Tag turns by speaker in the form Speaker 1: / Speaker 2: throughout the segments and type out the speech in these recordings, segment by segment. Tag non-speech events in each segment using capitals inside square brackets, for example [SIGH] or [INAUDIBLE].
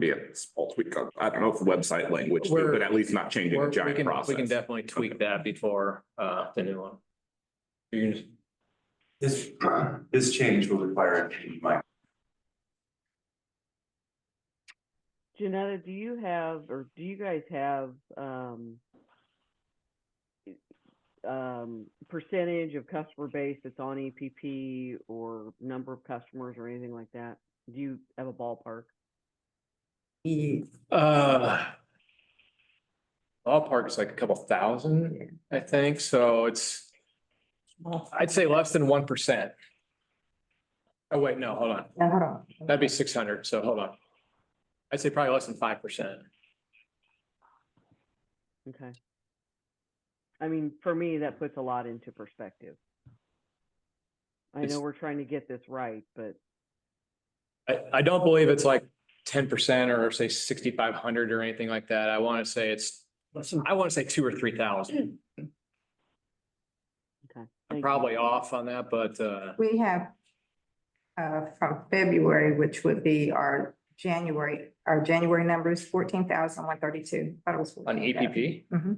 Speaker 1: be a small tweak on, I don't know if website language,
Speaker 2: We're-
Speaker 1: but at least not changing
Speaker 2: We're-
Speaker 1: the
Speaker 2: we
Speaker 1: giant
Speaker 2: can- We can
Speaker 1: process.
Speaker 2: definitely tweak that before uh the new one. You can just,
Speaker 3: This, this change will require a change, Mike.
Speaker 4: Janetta, do you have, or do you guys have, um, um, percentage of customer base that's on EPP or number of customers or anything like that? Do you have a ballpark?
Speaker 2: uh. Ballpark's like a couple thousand, I think, so it's. I'd say less than one percent. Oh, wait, no, hold on.
Speaker 5: Yeah, hold on.
Speaker 2: That'd be six hundred, so hold on. I'd say probably less than five percent.
Speaker 4: Okay. I mean, for me, that puts a lot into perspective. I
Speaker 2: It's-
Speaker 4: know we're trying to get this right, but
Speaker 2: I, I don't believe it's like ten percent or say sixty-five hundred or anything like that. I want to say it's, I want to say two or three thousand.
Speaker 4: okay. thank
Speaker 2: I'm
Speaker 4: you.
Speaker 2: probably off on that, but, uh,
Speaker 5: We have uh, from February, which would be our January, our January number is fourteen thousand one thirty-two.
Speaker 2: on
Speaker 5: Oh,
Speaker 2: E EPP,
Speaker 5: Mhm.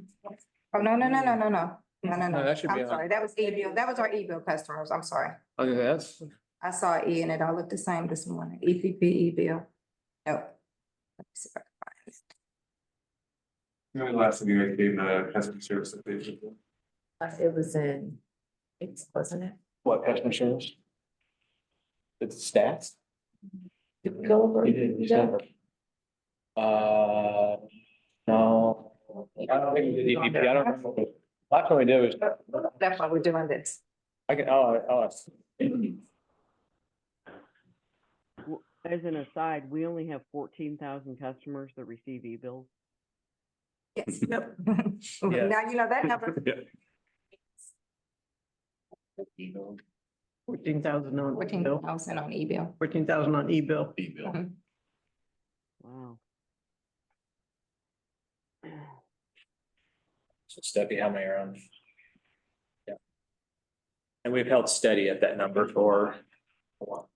Speaker 5: Oh, no, no, no, no, no, no, no, no,
Speaker 2: No,
Speaker 5: no.
Speaker 2: that should be
Speaker 5: I'm
Speaker 2: on-
Speaker 5: sorry, that was E bill, that was our E bill customers, I'm sorry.
Speaker 2: I think that's,
Speaker 5: I saw E and it all looked the same this morning, EPP, E bill. Nope. Let me see if I
Speaker 3: When
Speaker 5: can
Speaker 3: was the last time you guys gave the customer service update?
Speaker 6: It was in, it's, wasn't it?
Speaker 2: what, customer service? It's stats?
Speaker 6: Did we go over? that?
Speaker 2: Uh, no. I don't think we did EPP. E I don't remember. Last one we did was,
Speaker 5: find it. That's why we're doing this.
Speaker 2: I can, oh, oh,
Speaker 4: As an aside, we only have fourteen thousand customers that receive e-bills.
Speaker 5: Yes, yep. Now you know that number.
Speaker 7: Fourteen thousand on
Speaker 5: Fourteen
Speaker 7: bill,
Speaker 5: thousand on E bill.
Speaker 7: fourteen thousand on e-bill.
Speaker 3: E-bill.
Speaker 4: Wow.
Speaker 2: So Stephanie, how many are on? Yeah. And we've held steady at that number for. a while.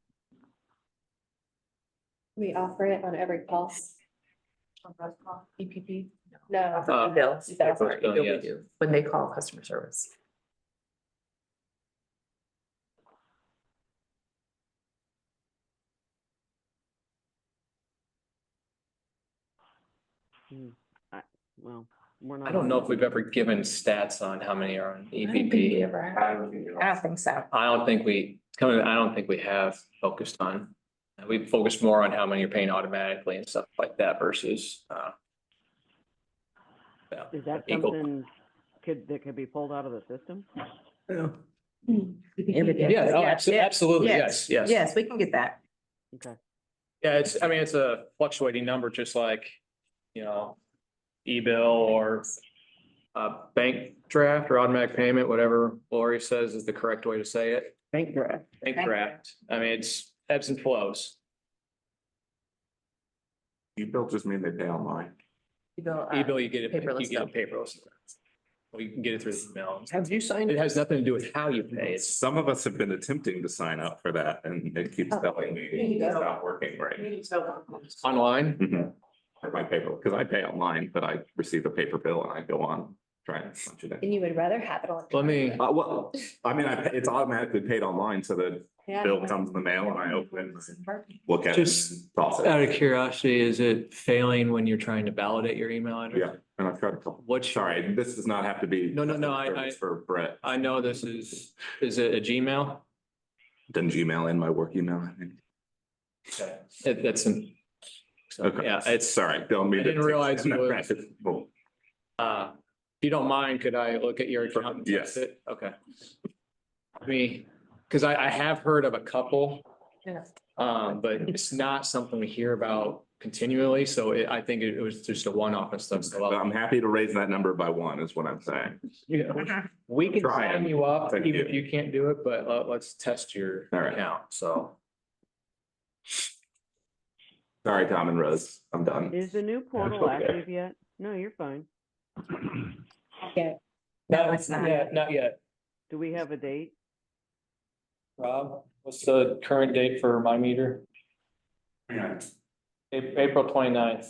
Speaker 6: We offer it on every pulse. On those call, EPP? No.
Speaker 2: Uh,
Speaker 6: Bill. That's
Speaker 2: those
Speaker 6: our
Speaker 2: bill,
Speaker 6: bill we
Speaker 2: E yes.
Speaker 6: do, when they call customer service.
Speaker 4: Well, we're not.
Speaker 2: I don't
Speaker 4: on
Speaker 2: know
Speaker 4: that.
Speaker 2: if we've ever given stats on how many are on
Speaker 6: I don't think we
Speaker 2: EPP.
Speaker 6: ever had.
Speaker 3: I don't think you know.
Speaker 5: I don't think so.
Speaker 2: I don't think we, it's coming, I don't think we have focused on. We focused more on how many are paying automatically and stuff like that versus, uh. yeah,
Speaker 4: Is that
Speaker 2: equal-
Speaker 4: something could, that could be pulled out of the system?
Speaker 7: Yeah.
Speaker 5: Everything.
Speaker 2: Mm. Yeah, oh, abso- absolutely, yes, yes.
Speaker 5: Yes, we can get that.
Speaker 4: Okay.
Speaker 2: Yeah, it's, I mean, it's a fluctuating number, just like, you know, e-bill or uh, bank draft or automatic payment, whatever Lori says is the correct way to say it.
Speaker 7: Bank draft.
Speaker 2: Bank
Speaker 5: Bank
Speaker 2: draft. I mean, it's ebbs and flows.
Speaker 1: You built just mean they pay online.
Speaker 6: You go, uh,
Speaker 2: E-bill, you get it, you
Speaker 6: Paperless
Speaker 2: get
Speaker 6: bill.
Speaker 2: it paperless. Or you can get it through the mail.
Speaker 7: Have you signed
Speaker 2: It has nothing to do with how you pay. It's,
Speaker 1: Some of us have been attempting to sign up for that and it keeps telling me it's not working right.
Speaker 2: online.
Speaker 1: Mhm. For my paper, because I pay online, but I receive a paper bill and I go on trying to punch it in.
Speaker 6: And you would rather have it on.
Speaker 2: Let me,
Speaker 1: Uh, well, I mean, I, it's automatically paid online, so the
Speaker 6: Yeah.
Speaker 1: bill comes in the mail and I open it, look at it.
Speaker 2: Just
Speaker 1: and process
Speaker 2: out
Speaker 1: it.
Speaker 2: of curiosity, is it failing when you're trying to validate your email address?
Speaker 1: Yeah, and I've tried a couple.
Speaker 2: What's your,
Speaker 1: Sorry, this does not have to be.
Speaker 2: No, no, no, I- I-
Speaker 1: For Brett,
Speaker 2: I know this is, is it a Gmail?
Speaker 1: done Gmail in my work email, I think.
Speaker 2: It, that's, an-
Speaker 1: Okay.
Speaker 2: yeah, it's,
Speaker 1: Sorry, don't mean
Speaker 2: I
Speaker 1: to.
Speaker 2: didn't realize you were-
Speaker 1: Well,
Speaker 2: uh, if you don't mind, could I look at your account? and
Speaker 1: Yes.
Speaker 2: test it? Okay. I mean, because I, I have heard of a couple,
Speaker 6: Yeah.
Speaker 2: um, but it's not something we hear about continually, so it, I think it was just a one-off and stuff, [LAUGHS] so.
Speaker 1: But
Speaker 2: I'll-
Speaker 1: I'm happy to raise that number by one is what I'm saying.
Speaker 5: Uh-huh.
Speaker 2: We can
Speaker 1: Try it.
Speaker 2: sign you up,
Speaker 1: Thank
Speaker 2: even
Speaker 1: you.
Speaker 2: if you can't do it, but let, let's test your
Speaker 1: All right.
Speaker 2: account, so.
Speaker 1: Sorry, Tom and Rose, I'm done.
Speaker 4: Is the new portal
Speaker 1: okay.
Speaker 4: active yet? No, you're fine.
Speaker 5: No, it's not.
Speaker 2: Yeah, not yet.
Speaker 4: Do we have a date?
Speaker 2: Rob, what's the current date for my meter?
Speaker 3: Yeah.
Speaker 2: April 29th.